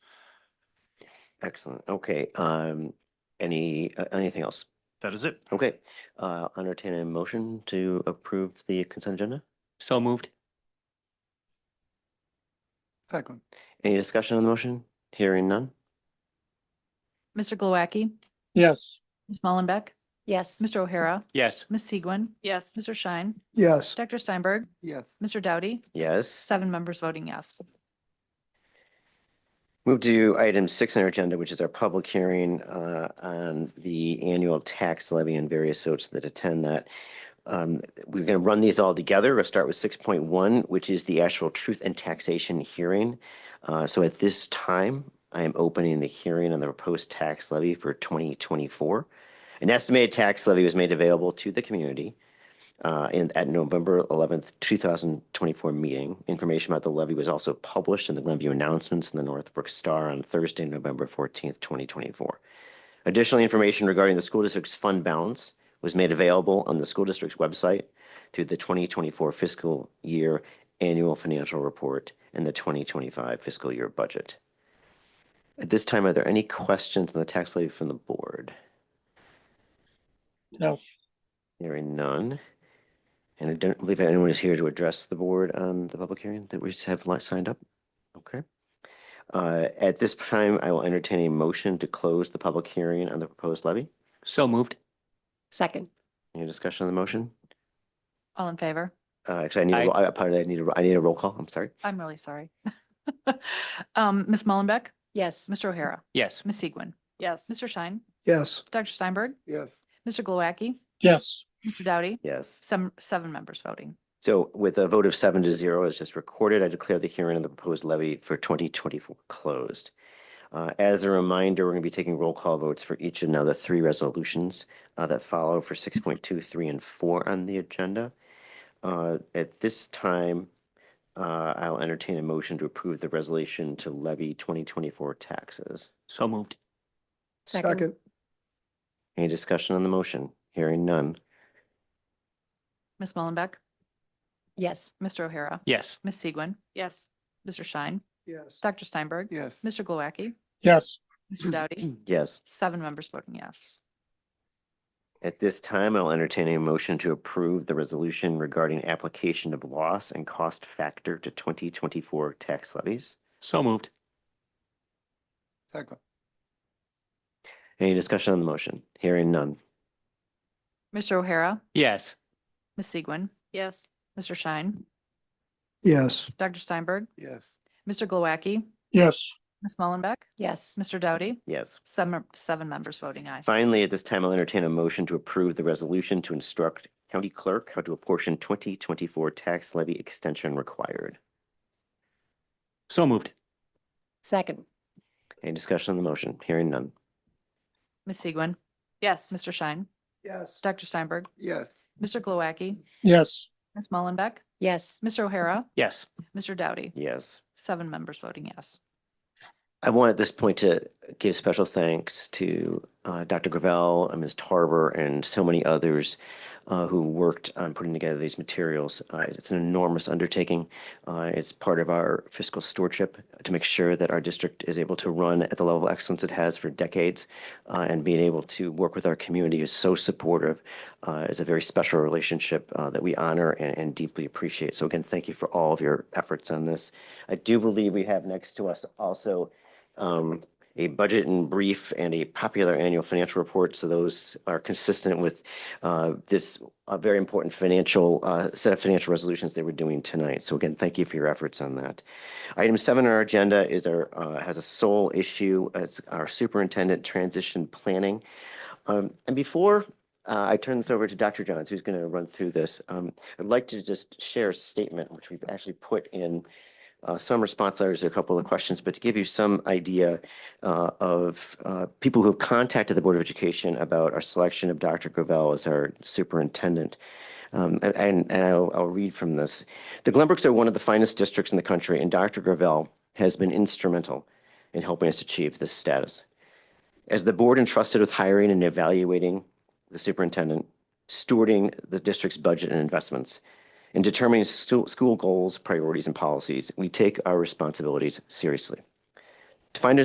Excellent. Okay. Um, any, uh, anything else? That is it. Okay. Uh, I'll entertain a motion to approve the consent agenda. So moved. Second. Any discussion on the motion? Hearing none? Mr. Glowacki, Yes. Ms. Mullenbeck, Yes. Mr. O'Hara, Yes. Ms. Segwin, Yes. Mr. Schein, Yes. Dr. Steinberg, Yes. Mr. Doughty, Yes. seven members voting yes. Move to item six on our agenda, which is our public hearing uh, on the annual tax levy and various votes that attend that. Um, We're going to run these all together. We'll start with six point one, which is the actual truth and taxation hearing. Uh, So at this time, I am opening the hearing on the proposed tax levy for twenty twenty-four. An estimated tax levy was made available to the community uh, in, at November eleventh, two thousand twenty-four meeting. Information about the levy was also published in the Glenview Announcements in the Northbrook Star on Thursday, November fourteenth, twenty twenty-four. Additional information regarding the school district's fund balance was made available on the school district's website through the twenty twenty-four fiscal year annual financial report and the twenty twenty-five fiscal year budget. At this time, are there any questions on the tax levy from the board? No. Hearing none. And I don't believe anyone is here to address the board on the public hearing that we have li- signed up. Okay. Uh, At this time, I will entertain a motion to close the public hearing on the proposed levy. So moved. Second. Any discussion on the motion? All in favor? Uh, Actually, I need, a Aye. ro- I- apparently I need a, ro- I need a roll call. I'm sorry. I'm really sorry. Um, Ms. Mullenbeck, Yes. Mr. O'Hara, Yes. Ms. Segwin, Yes. Mr. Schein, Yes. Dr. Steinberg, Yes. Mr. Glowacki, Yes. Mr. Doughty, Yes. some, seven members voting. So with a vote of seven to zero as just recorded, I declare the hearing on the proposed levy for twenty twenty-four closed. Uh, as a reminder, we're going to be taking roll call votes for each of now the three resolutions uh, that follow for six point two, three, and four on the agenda. Uh, at this time, uh, I'll entertain a motion to approve the resolution to levy twenty twenty-four taxes. So moved. Second. Any discussion on the motion? Hearing none. Ms. Mullenbeck, Yes. Mr. O'Hara, Yes. Ms. Segwin, Yes. Mr. Schein, Yes. Dr. Steinberg, Yes. Mr. Glowacki, Yes. Mr. Doughty, Yes. seven members voting yes. At this time, I'll entertain a motion to approve the resolution regarding application of loss and cost factor to twenty twenty-four tax levies. So moved. Second. Any discussion on the motion? Hearing none. Mr. O'Hara, Yes. Ms. Segwin, Yes. Mr. Schein, Yes. Dr. Steinberg, Yes. Mr. Glowacki, Yes. Ms. Mullenbeck, Yes. Mr. Doughty, Yes. seven, seven members voting aye. Finally, at this time, I'll entertain a motion to approve the resolution to instruct county clerk how to apportion twenty twenty-four tax levy extension required. So moved. Second. Any discussion on the motion? Hearing none. Ms. Segwin, Yes. Mr. Schein, Yes. Dr. Steinberg, Yes. Mr. Glowacki, Yes. Ms. Mullenbeck, Yes. Mr. O'Hara, Yes. Mr. Doughty, Yes. seven members voting yes. I want at this point to give special thanks to uh, Dr. Gravel and Ms. Tarver and so many others uh, who worked on putting together these materials. Uh, It's an enormous undertaking. Uh, It's part of our fiscal stewardship to make sure that our district is able to run at the level of excellence it has for decades. uh, And being able to work with our community who's so supportive uh, is a very special relationship uh, that we honor and and deeply appreciate. So again, thank you for all of your efforts on this. I do believe we have next to us also um, a budget and brief and a popular annual financial report. So those are consistent with uh, this uh, very important financial uh, set of financial resolutions they were doing tonight. So again, thank you for your efforts on that. Item seven on our agenda is our uh, has a sole issue. It's our superintendent transition planning. Um, and before uh, I turn this over to Dr. Johns, who's going to run through this, um, I'd like to just share a statement which we've actually put in uh, some response letters, to a couple of questions, but to give you some idea uh, of uh, people who have contacted the Board of Education about our selection of Dr. Gravel as our superintendent. Um, and- and and I'll, I'll read from this. The Glenbrooks are one of the finest districts in the country, and Dr. Gravel has been instrumental in helping us achieve this status. As the board entrusted with hiring and evaluating the superintendent, stewarding the district's budget and investments, in determining stu- school goals, priorities, and policies, we take our responsibilities seriously. To find a